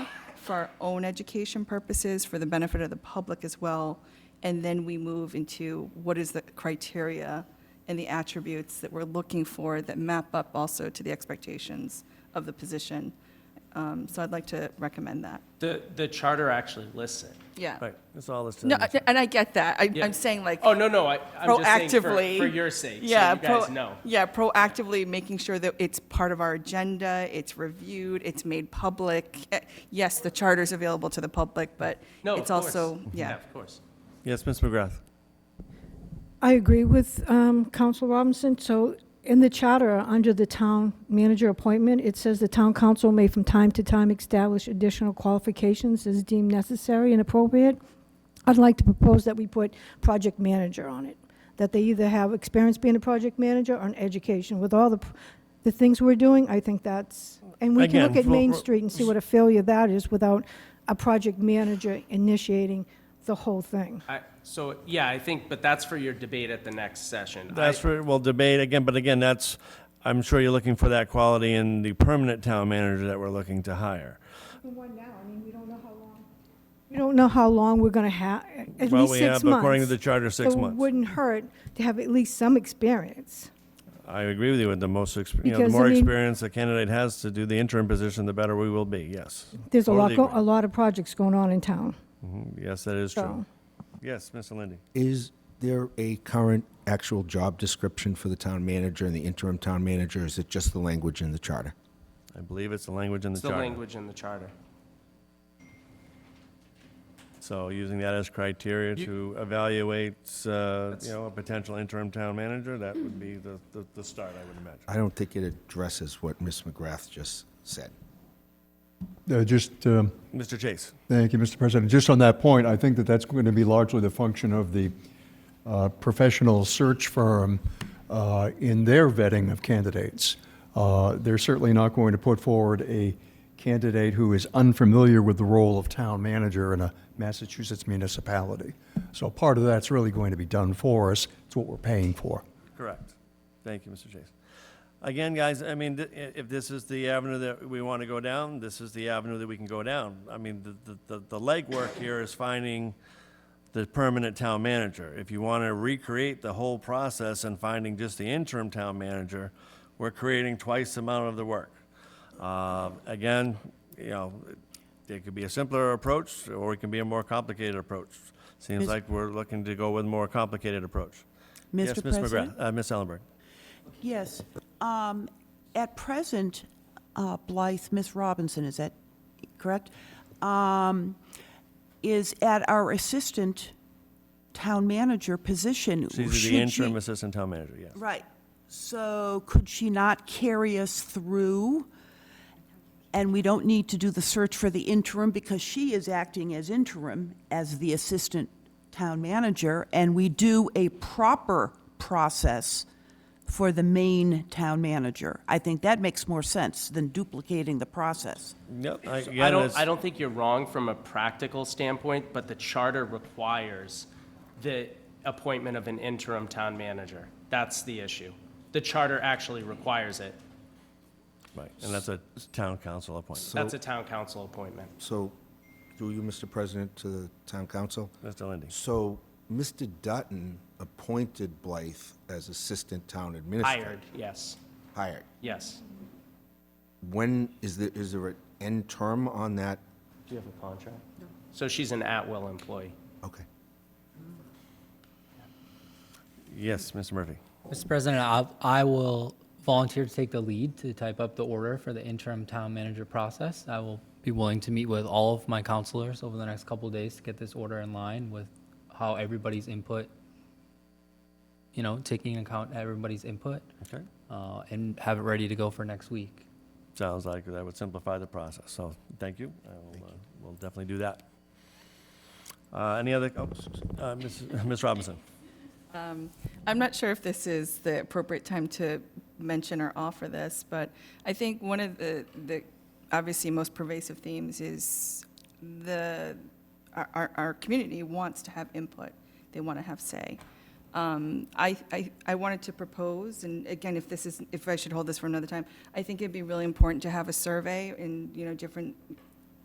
for our own education purposes, for the benefit of the public as well, and then we move into what is the criteria and the attributes that we're looking for that map up also to the expectations of the position. Um, So I'd like to recommend that. The, the charter actually lists it. Yeah. Right, that's all it's. No, I- and I get that. I- Yeah. I'm saying like. Oh, no, no, I, I'm just saying for, proactively. for your sake, so you yeah, guys pro- know. Yeah, proactively making sure that it's part of our agenda, it's reviewed, it's made public. Eh, Yes, the charter's available to the public, but No, it's of course. also, yeah. Of course. Yes, Ms. McGrath. I agree with um, Council Robinson. So in the charter, under the town manager appointment, it says the town council may from time to time establish additional qualifications as deemed necessary and appropriate. I'd like to propose that we put project manager on it, that they either have experience being a project manager or an education. With all the, p- the things we're doing, I think that's, and we can look Again, at Main we'll- Street and see what a failure that is without a project manager initiating the whole thing. I, so, yeah, I think, but that's for your debate at the next session. I- That's for, we'll debate again, but again, that's, I'm sure you're looking for that quality in the permanent town manager that we're looking to hire. the one now, I mean, we don't know how long. We don't know how long we're gonna have, at least six months. Well, we have, according to the charter, six So it months. wouldn't hurt to have at least some experience. I agree with you, and the most, exp- you know, the Because, I more mean- experience a candidate has to do the interim position, the better we will be, yes. There's a lot, Totally go- agree. a lot of projects going on in town, Yes, that is true. so. Yes, Mr. Lindy. Is there a current actual job description for the town manager and the interim town manager? Is it just the language in the charter? I believe it's the language in the It's the charter. language in the charter. So using that as criteria You- to evaluate, uh, That's- you know, a potential interim town manager, that would be the, the- the start, I would imagine. I don't think it addresses what Ms. McGrath just said. Uh, Just, um, Mr. Chase? thank you, Mr. President. Just on that point, I think that that's going to be largely the function of the uh, professional search firm uh, in their vetting of candidates. Uh, They're certainly not going to put forward a candidate who is unfamiliar with the role of town manager in a Massachusetts municipality. So part of that's really going to be done for us. It's what we're paying for. Correct. Thank you, Mr. Chase. Again, guys, I mean, th- i- if this is the avenue that we want to go down, this is the avenue that we can go down. I mean, the- the, the, the legwork here is finding the permanent town manager. If you want to recreate the whole process and finding just the interim town manager, we're creating twice the amount of the work. Uh, Again, you know, it could be a simpler approach, or it can be a more complicated approach. Seems like we're looking to go with a more complicated approach. Yes, Ms. Mr. McGrath- President? uh, Ms. Ellenberg. Yes. Um, At present, uh, Blythe, Miss Robinson, is that correct? Um, Is at our assistant town manager position. She's Should the interim she- assistant town manager, yes. Right. So could she not carry us through? And we don't need to do the search for the interim because she is acting as interim as the assistant town manager, and we do a proper process for the main town manager. I think that makes more sense than duplicating the process. Yep, I- I again, don't, it's, I don't think you're wrong from a practical standpoint, but the charter requires the appointment of an interim town manager. That's the issue. The charter actually requires it. right, and that's a town council appointment. That's a town council appointment. So, through you, Mr. President, to the town council? Mr. Lindy, So, Mr. Dutton appointed Blythe as assistant town administrator? Hired, yes, Hired. yes. When, is there, is there an end term on that? Do you have a contract? So she's an at-will employee. Okay. yes, Mr. Murphy. Mr. President, I, I will volunteer to take the lead to type up the order for the interim town manager process. I will be willing to meet with all of my counselors over the next couple of days to get this order in line with how everybody's input, you know, taking into account everybody's input, Okay, uh, and have it ready to go for next week. sounds like that would simplify the process, so thank you. I will, uh, We'll definitely do that. Uh, Any other, oh, uh, Ms. Ms. Robinson? I'm not sure if this is the appropriate time to mention or offer this, but I think one of the, the obviously most pervasive themes is the, our, our, our community wants to have input. They want to have say. Um, I, I, I wanted to propose, and again, if this is, if I should hold this for another time, I think it'd be really important to have a survey in, you know, different